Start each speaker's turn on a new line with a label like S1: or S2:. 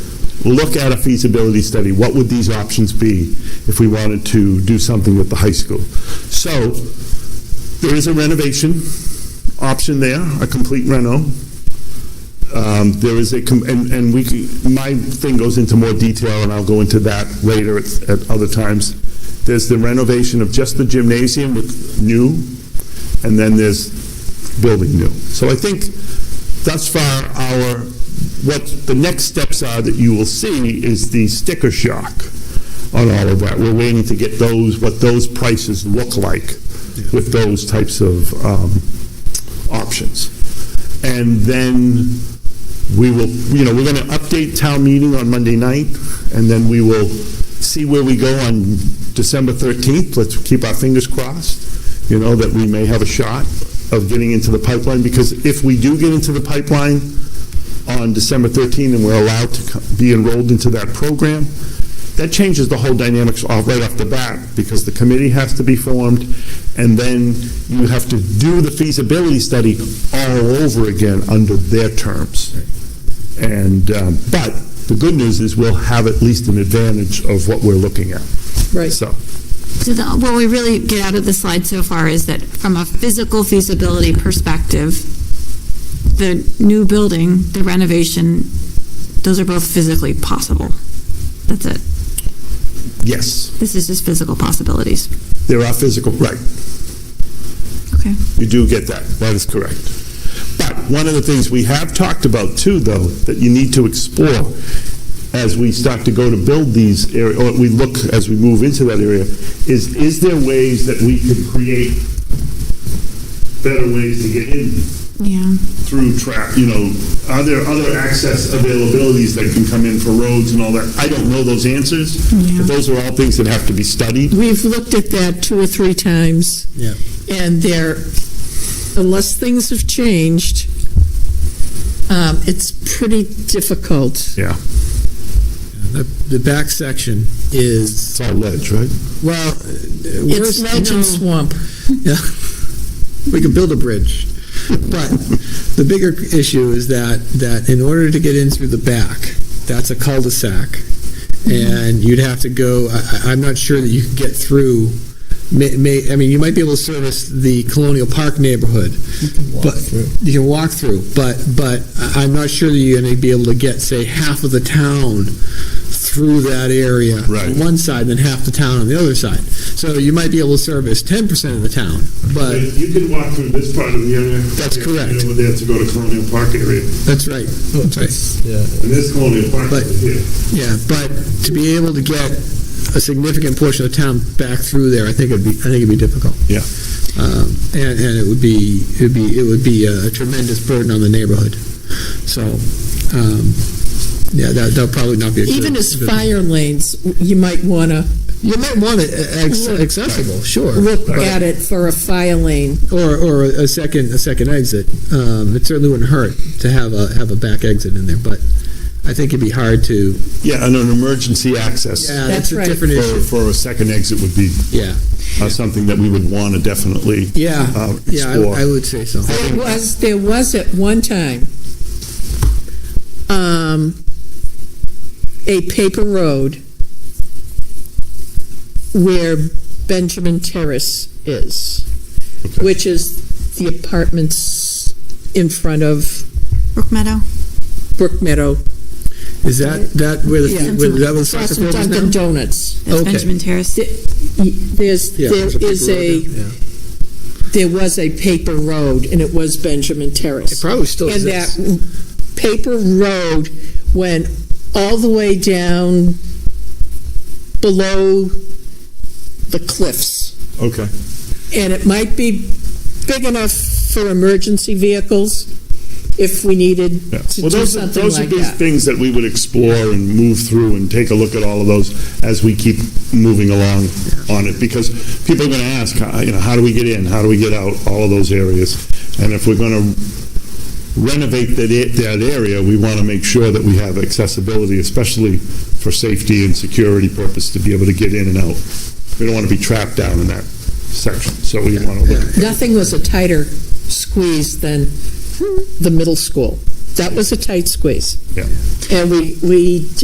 S1: look at a feasibility study, what would these options be if we wanted to do something with the high school? So, there is a renovation option there, a complete reno. Um, There is a, com- and and we, can- my thing goes into more detail, and I'll go into that later at at other times. There's the renovation of just the gymnasium with new, and then there's building new. So I think thus far, our, what the next steps are that you will see is the sticker shock on all of that. We're waiting to get those, what those prices look like with those types of um, options. And then we will, you know, we're going to update town meeting on Monday night, and then we will see where we go on December 13th. Let's keep our fingers crossed, you know, that we may have a shot of getting into the pipeline, because if we do get into the pipeline on December 13th and we're allowed to co- be enrolled into that program, that changes the whole dynamics off, right off the bat, because the committee has to be formed, and then you have to do the feasibility study all over again under their terms. And, um, but the good news is we'll have at least an advantage of what we're looking at.
S2: Right.
S1: So,
S3: So the, what we really get out of the slide so far is that from a physical feasibility perspective, the new building, the renovation, those are both physically possible. That's it.
S1: yes,
S3: This is just physical possibilities.
S1: there are physical, right,
S3: Okay.
S1: You do get that, that is correct. But one of the things we have talked about too, though, that you need to explore as we start to go to build these area, or we look as we move into that area, is, is there ways that we could create better ways to get in
S3: Yeah.
S1: through trap, you know, are there other access availabilities that can come in for roads and all that? I don't know those answers,
S3: Yeah.
S1: but those are all things that have to be studied.
S2: We've looked at that two or three times.
S4: Yeah.
S2: And there, unless things have changed, um, it's pretty difficult.
S1: Yeah.
S4: The, the back section is,
S1: It's all ledge, right?
S4: well, uh,
S2: It's
S4: worse,
S2: Melton Swamp.
S4: yeah. We could build a bridge. But the bigger issue is that, that in order to get in through the back, that's a cul-de-sac. And you'd have to go, I, I- I'm not sure that you could get through, may, may, I mean, you might be able to service the Colonial Park neighborhood. But, you can walk through, but, but I- I'm not sure that you're gonna be able to get, say, half of the town through that area.
S1: Right.
S4: On one side, then half the town on the other side. So you might be able to service ten percent of the town, but.
S1: You can walk through this part of the area.
S4: That's
S1: if you're
S4: correct.
S1: Over there to go to Colonial Park area,
S4: That's right. That's right.
S1: and this Colonial Park
S4: But-
S1: over here.
S4: Yeah, but to be able to get a significant portion of town back through there, I think it'd be, I think it'd be difficult.
S1: Yeah.
S4: Um, And, and it would be, it'd be, it would be a tremendous burden on the neighborhood. So, um, yeah, that, that'll probably not be a good.
S2: Even as
S4: good-
S2: fire lanes, you might want to
S4: You might want it uh, acc-
S2: Look.
S4: accessible, sure.
S2: look
S4: but-
S2: at it for a fire lane.
S4: Or, or a second, a second exit. Um, It certainly wouldn't hurt to have a, have a back exit in there, but I think it'd be hard to.
S1: Yeah, and an emergency access
S4: Yeah,
S2: That's
S4: that's a
S2: right.
S4: different
S1: for,
S4: issue.
S1: for a second exit would be
S4: Yeah.
S1: uh, something that we would want to definitely
S4: Yeah,
S1: uh,
S4: yeah,
S1: explore.
S4: I I would say so.
S2: There was, there was at one time, um, a paper road where Benjamin Terrace is,
S1: Okay.
S2: which is the apartments in front of
S3: Brook Meadow?
S2: Brook Meadow.
S4: Is that, that where the,
S2: Yeah.
S4: where that was
S2: Across
S4: soccer
S2: from
S4: field is
S2: Dunkin'
S4: now?
S2: Donuts.
S3: That's
S4: Okay.
S3: Benjamin Terrace.
S2: Y- There's,
S4: Yeah,
S2: there
S4: there's big
S2: is
S4: road
S2: a,
S4: there, yeah.
S2: there was a paper road, and it was Benjamin Terrace.
S4: It probably still
S2: and
S4: exists.
S2: that paper road went all the way down below the cliffs.
S1: Okay,
S2: And it might be big enough for emergency vehicles if we needed
S1: yeah.
S2: to
S1: Well,
S2: do
S1: those, are-
S2: something
S1: those are
S2: like
S1: big
S2: that.
S1: things that we would explore and move through and take a look at all of those as we keep moving along on it, because people are going to ask, uh, you know, how do we get in, how do we get out, all of those areas? And if we're going to renovate that, a- that area, we want to make sure that we have accessibility, especially for safety and security purpose, to be able to get in and out. We don't want to be trapped down in that section, so we want to look at
S2: Nothing was a tighter squeeze than the middle school. That was a tight squeeze.
S1: Yeah.
S2: And we, we